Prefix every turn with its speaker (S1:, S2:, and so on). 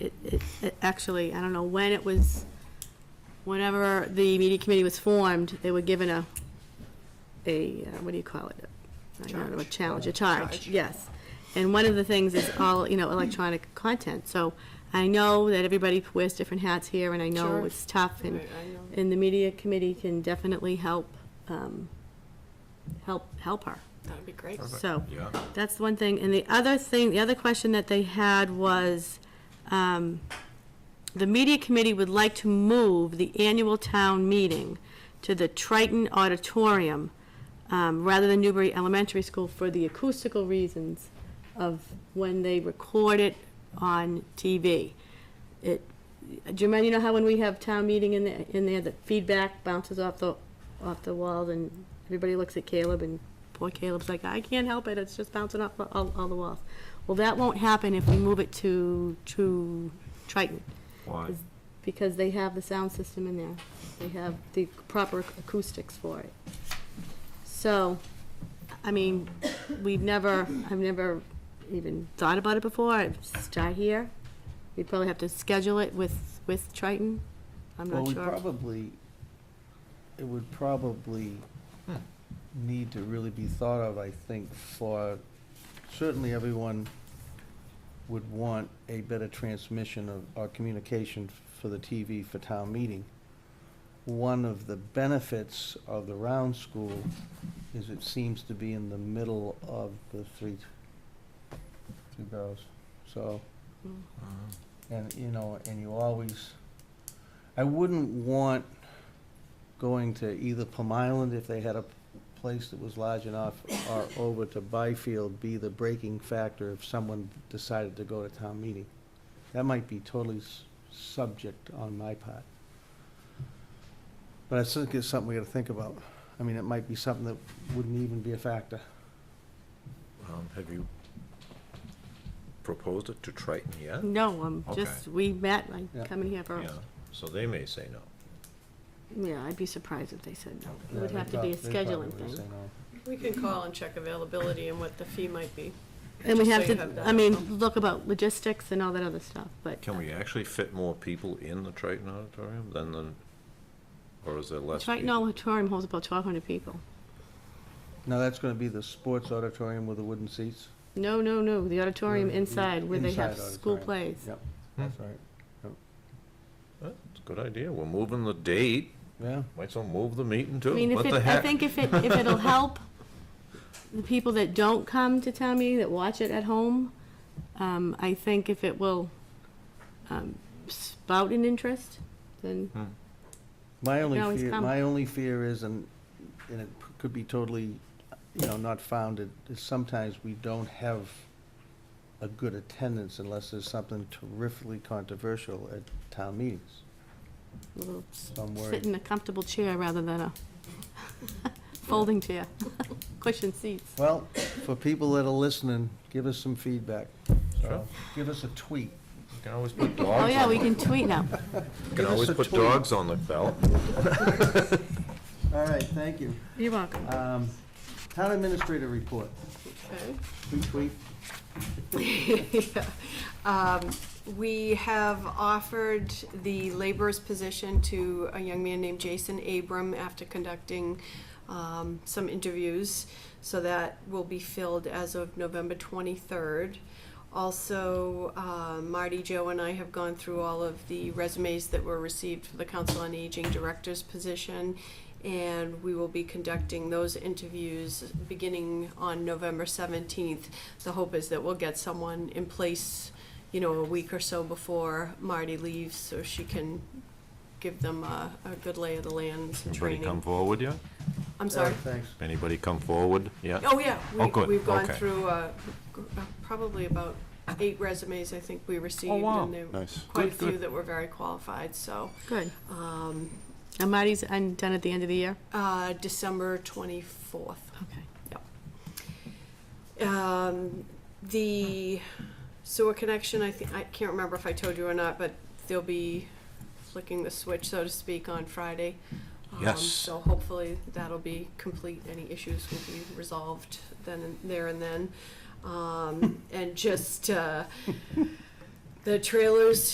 S1: it, it, it- actually, I don't know when it was, whenever the media committee was formed, they were given a, a, uh, what do you call it? I don't know, a challenge, a charge,
S2: Charge.
S1: yes. And one of the things is all, you know, electronic content. So I know that everybody wears different hats here, and I know
S2: Sure.
S1: it's tough, and,
S2: Right, I know.
S1: and the media committee can definitely help, um, help, help her.
S2: That'd be great.
S1: So,
S3: Yeah.
S1: that's one thing. And the other thing, the other question that they had was, um, the media committee would like to move the annual town meeting to the Triton Auditorium, um, rather than Newbury Elementary School for the acoustical reasons of when they record it on TV. It, do you remember, you know how when we have town meeting in there, in there, the feedback bounces off the, off the walls and everybody looks at Caleb and poor Caleb's like, I can't help it, it's just bouncing off all, all the walls. Well, that won't happen if we move it to, to Triton.
S3: Why?
S1: Is- Because they have the sound system in there. They have the proper acoustics for it. So, I mean, we've never, I've never even thought about it before. I start here. We'd probably have to schedule it with, with Triton. I'm
S4: Well,
S1: not
S4: we
S1: sure.
S4: probably, it would probably need to really be thought of, I think, for, certainly everyone would want a better transmission of, or communication for the TV for town meeting. One of the benefits of the round school is it seems to be in the middle of the three, two girls, so.
S3: Uh-huh.
S4: And, you know, and you always, I wouldn't want going to either Plum Island if they had a place that was large enough, or over to Byfield be the breaking factor if someone decided to go to town meeting. That might be totally s- subject on my part. But I still think it's something we gotta think about. I mean, it might be something that wouldn't even be a factor.
S3: Um, Have you proposed it to Triton yet?
S1: No, I'm
S3: Okay.
S1: just, we met,
S4: Yeah.
S1: like, coming here for,
S3: Yeah, so they may say no.
S1: yeah, I'd be surprised if they said no. It
S4: Yeah,
S1: would
S4: they
S1: have to be a
S4: prob- they probably
S1: scheduling
S4: would say
S1: thing.
S4: no.
S2: We can call and check availability and what the fee might be.
S1: And we
S2: just
S1: have
S2: so you have
S1: to,
S2: that.
S1: I mean, look about logistics and all that other stuff, but.
S3: Can we actually fit more people in the Triton Auditorium than the, or is there less?
S1: Triton
S3: people?
S1: Auditorium holds about twelve hundred people.
S4: No, that's gonna be the sports auditorium with the wooden seats.
S1: No, no, no, the auditorium inside where they have
S4: Inside
S1: school
S4: auditorium.
S1: plays.
S4: Yep, that's right,
S3: That's a good idea. We're moving the date.
S4: yeah.
S3: Might as well move the meeting too.
S1: I mean, if
S3: What
S1: it,
S3: the
S1: I
S3: heck?
S1: think if it, if it'll help the people that don't come to town meeting, that watch it at home, um, I think if it will, um, spout an interest, then,
S4: My only
S1: always
S4: fear,
S1: come.
S4: my only fear is, and, and it could be totally, you know, not founded, is sometimes we don't have a good attendance unless there's something terrifically controversial at town meetings.
S1: we'll
S4: So I'm
S1: sit
S4: worried.
S1: in a comfortable chair rather than a folding chair, cushion seats.
S4: Well, for people that are listening, give us some feedback.
S3: Sure.
S4: So, Give us a tweet.
S3: You Can always put
S1: Oh,
S3: dogs
S1: yeah,
S3: on,
S1: we
S3: you
S1: can tweet now.
S3: can
S4: give us
S3: always
S4: a
S3: put
S4: tweet.
S3: dogs on the ballot.
S4: All right, thank you.
S1: You're welcome.
S4: Um, Town administrator report,
S2: Okay.
S4: tweet, tweet.
S2: Um, We have offered the laborer's position to a young man named Jason Abram after conducting um, some interviews. So that will be filled as of November 23rd. Also, uh, Marty, Joe, and I have gone through all of the resumes that were received for the Council on Aging Director's position. And we will be conducting those interviews beginning on November 17th. The hope is that we'll get someone in place, you know, a week or so before Marty leaves, so she can give them a, a good lay of the land, some
S3: Anybody come
S2: training.
S3: forward yet?
S2: I'm sorry.
S4: Thanks.
S3: Anybody come forward yet?
S2: Oh, yeah,
S3: Oh, good.
S2: we, we've gone
S3: Okay.
S2: through, uh, g- uh, probably about eight resumes, I think we received.
S3: Oh, wow.
S2: and there were
S3: Nice.
S2: Quite a
S3: Good, good.
S2: few that were very qualified, so,
S1: Good.
S2: um,
S1: And Marty's, I'm done at the end of the year?
S2: uh, December twenty-fourth.
S1: Okay.
S2: Um, the sewer connection, I think, I can't remember if I told you or not, but they'll be flicking the switch, so to speak, on Friday. Um,
S3: Yes.
S2: So hopefully that'll be complete, any issues will be resolved then, and there and then. Um, and just, uh, the trailers